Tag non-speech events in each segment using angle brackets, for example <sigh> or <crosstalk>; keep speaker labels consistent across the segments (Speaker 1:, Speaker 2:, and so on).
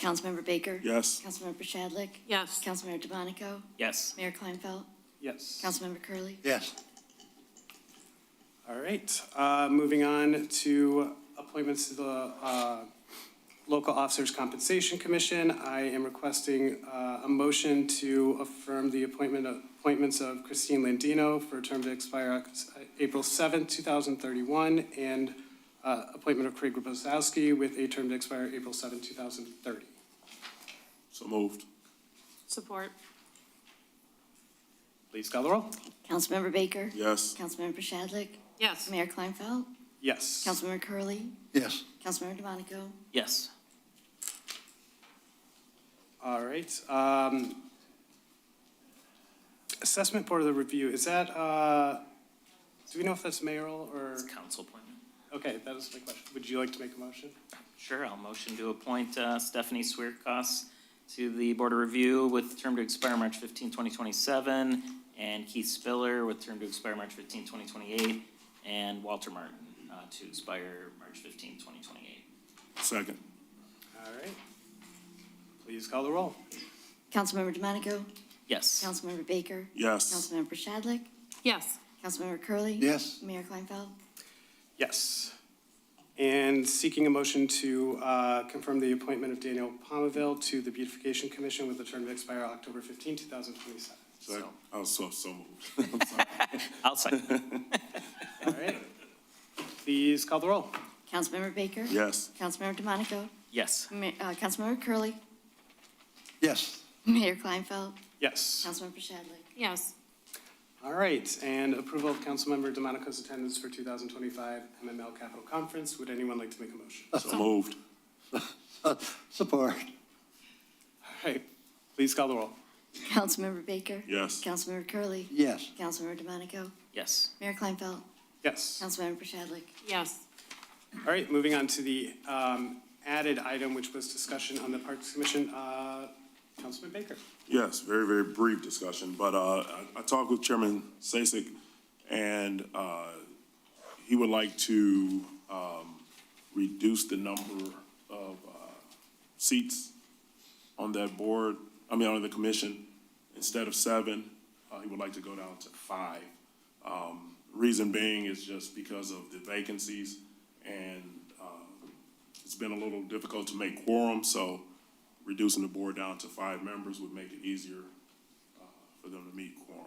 Speaker 1: Councilmember Baker?
Speaker 2: Yes.
Speaker 1: Councilmember Shadlick?
Speaker 3: Yes.
Speaker 1: Councilmember DeMonico?
Speaker 4: Yes.
Speaker 1: Mayor Kleinfeld?
Speaker 4: Yes.
Speaker 1: Councilmember Curley.
Speaker 5: Yes.
Speaker 6: All right, uh, moving on to appointments to the uh, Local Officers Compensation Commission. I am requesting uh, a motion to affirm the appointment of, appointments of Christine Landino for a term to expire Oc- April 7th, 2031, and uh, appointment of Craig Rubosowski with a term to expire April 7th, 2030.
Speaker 2: So moved.
Speaker 3: Support.
Speaker 6: Please call the roll.
Speaker 1: Councilmember Baker?
Speaker 2: Yes.
Speaker 1: Councilmember Shadlick?
Speaker 3: Yes.
Speaker 1: Mayor Kleinfeld?
Speaker 6: Yes.
Speaker 1: Councilmember Curley.
Speaker 5: Yes.
Speaker 1: Councilmember DeMonico?
Speaker 4: Yes.
Speaker 6: All right. um, Assessment Board of the Review, is that, uh, do we know if that's mayoral or,
Speaker 4: It's a council appointment.
Speaker 6: okay, that was my question. Would you like to make a motion?
Speaker 4: Sure, I'll motion to appoint uh, Stephanie Swirkos to the Board of Review with term to expire March 15, 2027, and Keith Spiller with term to expire March 15, 2028, and Walter Martin uh, to expire March 15, 2028.
Speaker 2: Second.
Speaker 6: All right. Please call the roll.
Speaker 1: Councilmember DeMonico?
Speaker 4: Yes.
Speaker 1: Councilmember Baker?
Speaker 2: Yes.
Speaker 1: Councilmember Shadlick?
Speaker 3: Yes.
Speaker 1: Councilmember Curley.
Speaker 5: Yes.
Speaker 1: Mayor Kleinfeld?
Speaker 6: Yes. And seeking a motion to uh, confirm the appointment of Daniel Palmaville to the Beautification Commission with a term to expire October 15, 2027.
Speaker 2: Second.
Speaker 4: So-
Speaker 2: Oh, so, so moved. I'm sorry.
Speaker 4: I'll second.
Speaker 6: All right. Please call the roll.
Speaker 1: Councilmember Baker?
Speaker 2: Yes.
Speaker 1: Councilmember DeMonico?
Speaker 4: Yes.
Speaker 1: Ma- uh, Councilmember Curley. <laughs>
Speaker 5: Yes.
Speaker 1: Mayor Kleinfeld?
Speaker 6: Yes.
Speaker 1: Councilmember Shadlick?
Speaker 3: Yes.
Speaker 6: All right, and approval of Councilmember DeMonico's attendance for 2025 MML Capital Conference. Would anyone like to make a motion? All
Speaker 2: So moved.
Speaker 5: Support.
Speaker 6: right, please call the roll.
Speaker 1: Councilmember Baker?
Speaker 2: Yes.
Speaker 1: Councilmember Curley.
Speaker 5: Yes.
Speaker 1: Councilmember DeMonico?
Speaker 4: Yes.
Speaker 1: Mayor Kleinfeld?
Speaker 6: Yes.
Speaker 1: Councilmember Shadlick?
Speaker 3: Yes.
Speaker 6: All right, moving on to the um, added item, which was discussion on the Parks Commission. Uh, Councilman Baker?
Speaker 2: Yes, very, very brief discussion, but uh, I I talked with Chairman Sasek, and uh, he would like to um, reduce the number of uh, seats on that board, I mean, on the commission. Instead of seven, uh, he would like to go down to five. Um, Reason being is just because of the vacancies, and uh, it's been a little difficult to make quorum, so reducing the board down to five members would make it easier uh, for them to meet quorum.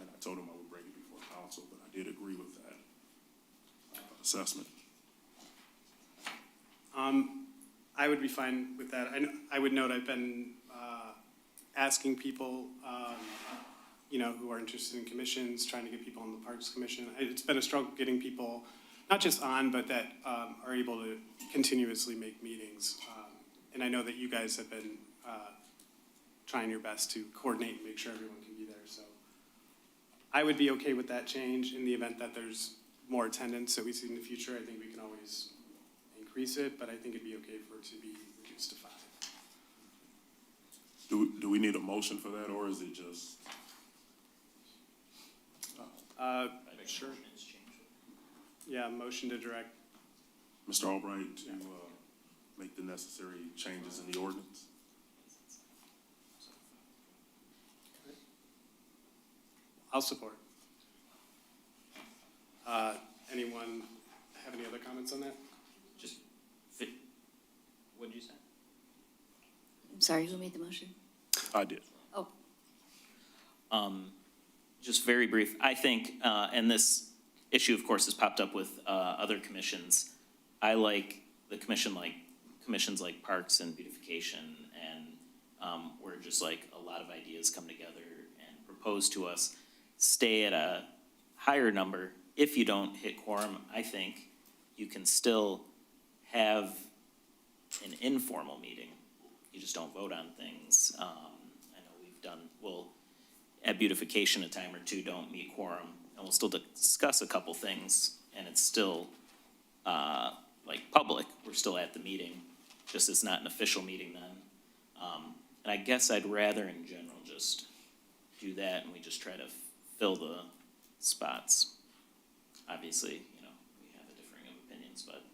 Speaker 2: And I told them I would bring it before council, but I did agree with that uh, assessment.
Speaker 6: Um, I would be fine with that. I, kn- I would note I've been uh, asking people, um, you know, who are interested in commissions, trying to get people on the Parks Commission. It's been a struggle getting people, not just on, but that um, are able to continuously make meetings. Um, And I know that you guys have been uh, trying your best to coordinate and make sure everyone can be there, so. I would be okay with that change in the event that there's more attendance that we see in the future. I think we can always increase it, but I think it'd be okay for it to be reduced to five.
Speaker 2: Do, do we need a motion for that, or is it just,
Speaker 6: Uh,
Speaker 4: Sure.
Speaker 6: yeah, motion to direct,
Speaker 2: Mr. Albright, to uh, make the necessary changes in the ordinance?
Speaker 6: I'll support. Uh, anyone have any other comments on that?
Speaker 4: Just fit. What'd you say?
Speaker 1: I'm sorry, who made the motion?
Speaker 2: I did.
Speaker 1: Oh,
Speaker 4: Um, Just very brief, I think, uh, and this issue, of course, has popped up with uh, other commissions. I like the commission like, commissions like Parks and Beautification, and um, where just like a lot of ideas come together and propose to us. Stay at a higher number. If you don't hit quorum, I think you can still have an informal meeting. You just don't vote on things. Um, I know we've done, we'll at beautification a time or two don't meet quorum, and we'll still discuss a couple things, and it's still, uh, like, public, we're still at the meeting, just it's not an official meeting then. Um, and I guess I'd rather in general just do that, and we just try to f- fill the spots. Obviously, you know, we have a differing of opinions, but